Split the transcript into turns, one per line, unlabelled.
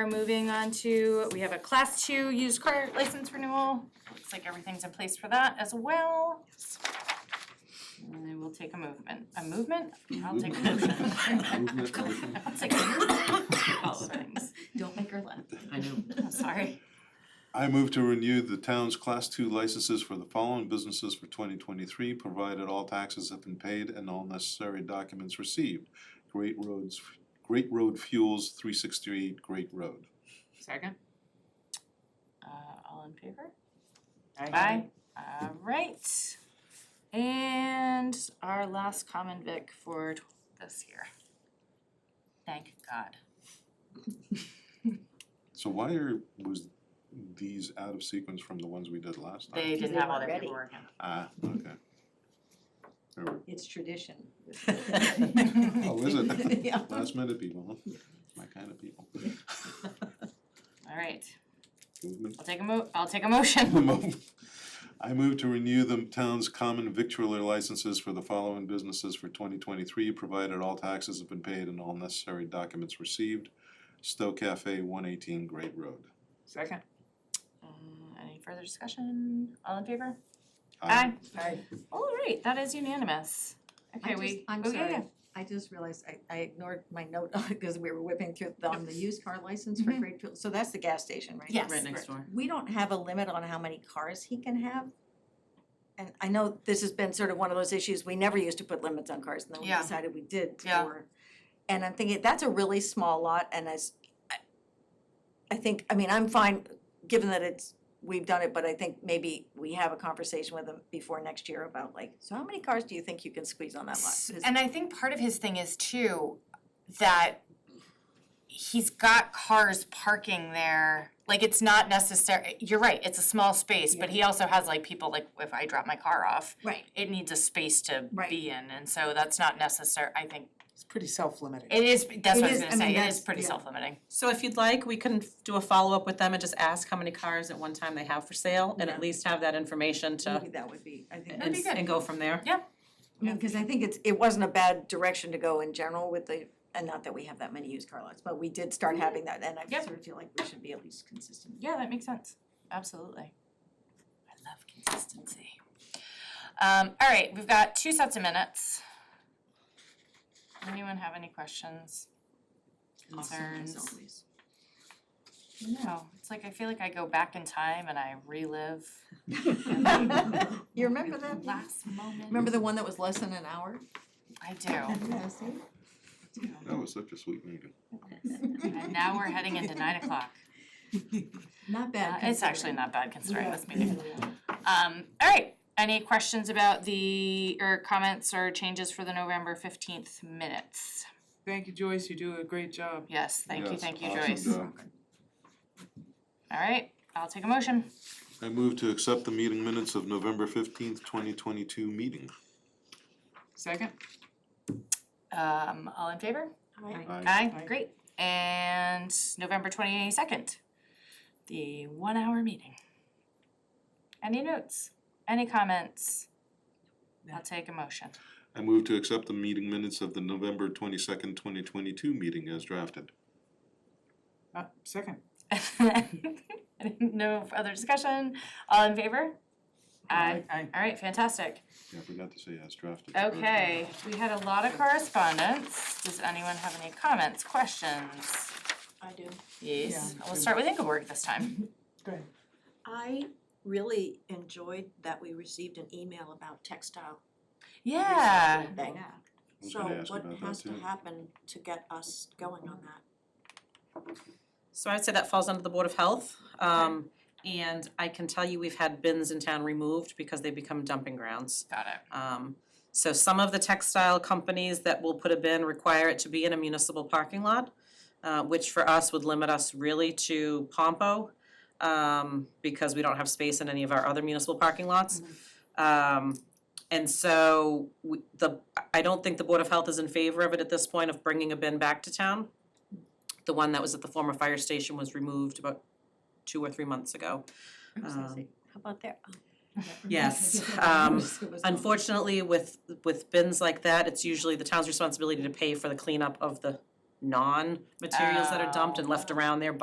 We're moving on to, we have a class two used car license renewal. Looks like everything's in place for that as well. And I will take a movement, a movement? I'll take a motion.
Movement, motion.
I'll take a movement. All things.
Don't make her laugh.
I know.
I'm sorry.
I move to renew the town's class two licenses for the following businesses for twenty twenty-three, provided all taxes have been paid and all necessary documents received. Great Roads, Great Road Fuels, three sixty-eight Great Road.
Second. Uh, all in favor? Aye. All right. And our last common vic for tw- this year. Thank God.
So why are, was these out of sequence from the ones we did last time?
They
Because
didn't
they
have all
weren't
their
ready.
paperwork in.
Ah, okay. There we-
It's tradition.
Oh, is it?
Yeah.
Last minute people, huh? My kind of people.
All right,
Movement
I'll take a mo- I'll take a motion.
Mo- I move to renew the town's common victualler licenses for the following businesses for twenty twenty-three, provided all taxes have been paid and all necessary documents received. Stowe Cafe, one eighteen Great Road.
Second.
Uh, any further discussion? All in favor?
Aye.
Aye.
All right, that is unanimous. Okay,
just-
we,
I'm
oh, yeah,
sorry.
yeah.
I just realized I I ignored my note because we were whipping through the- on the used car license for
Mhm.
Great Field. So that's the gas station, right?
Yes.
Right next door.
We don't have a limit on how many cars he can have. And I know this has been sort of one of those issues, we never used to put limits on cars and then we
Yeah.
decided we did for.
Yeah.
And I'm thinking, that's a really small lot and as, I, I think, I mean, I'm fine, given that it's, we've done it, but I think maybe we have a conversation with him before next year about like, so how many cars do you think you can squeeze on that lot? 'Cause-
And I think part of his thing is too that he's got cars parking there. Like it's not necessary. You're right. It's a small space, but he also has like people like if I drop my car off,
Right,
it needs a space to
Right.
be in, and so that's not necessary. I think
It's pretty self-limiting.
it is. That's what
It is-
I
I
was gonna
mean,
say. It
that's-
is pretty
yeah.
self-limiting.
So if you'd like, we can f- do a follow-up with them and just ask how many cars at one time they have for sale and
Yeah.
at least have that information to
maybe that would be, I think.
and,
be
s-
good.
and go from there.
Yeah, because I think it's, it wasn't a bad direction to go in general with the, and not that we have that many used car lots, but we did start having that, and I
Yep.
sort of feel like we should be at least consistent.
Yeah, that makes sense. Absolutely.
I love consistency. Um, all right, we've got two sets of minutes.
Anyone have any questions? Concerns?
Oh,
No, it's like I feel like I go back in time and I relive
You remember that?
last moment.
Remember the one that was less than an hour?
I do.
Yeah, see?
That was such a sweet meeting.
And now we're heading into nine o'clock.
Not
Uh,
bad.
It's actually not bad considering
Yeah.
this meeting. Um, all right, any questions about the, or comments or changes for the November fifteenth minutes?
Thank you, Joyce, you do a great job.
Yes, thank you,
Yes,
thank you,
awesome
Joyce.
job.
All right, I'll take a motion.
I move to accept the meeting minutes of November fifteenth, twenty twenty-two meeting.
Second?
Um, all in favor?
Aye.
Aye, great. And November twenty-second, the one-hour meeting. Any notes? Any comments? I'll take a motion.
I move to accept the meeting minutes of the November twenty-second, twenty twenty-two meeting as drafted.
Uh, second.
No other discussion? All in favor? Aye.
Aye.
All right, fantastic.
Yeah, I forgot to say as drafted.
Okay, we had a lot of correspondence. Does anyone have any comments, questions?
I do.
Yes,
Yeah.
we'll start with Ingeborg this time.
Go ahead.
I really enjoyed that we received an email about textile
Yeah,
bank.
I was
So
gonna ask
what
about that
has to
too.
happen to get us going on that?
So I'd say that falls under the Board of Health. Um, and I can tell you, we've had bins in town removed because they become dumping grounds.
got it.
Um, so some of the textile companies that will put a bin require it to be in a municipal parking lot, uh, which for us would limit us really to Pompo, um, because we don't have space in any of our other municipal parking lots. Um, and so we, the, I don't think the Board of Health is in favor of it at this point of bringing a bin back to town. The one that was at the former fire station was removed about two or three months ago. Um,
How about that? Oh, that reminds me.
Yes,
It
um,
was-
Unfortunately, with with bins like that, it's usually the
Oh.
town's responsibility to pay for the cleanup of the non-materials that are dumped and left around there,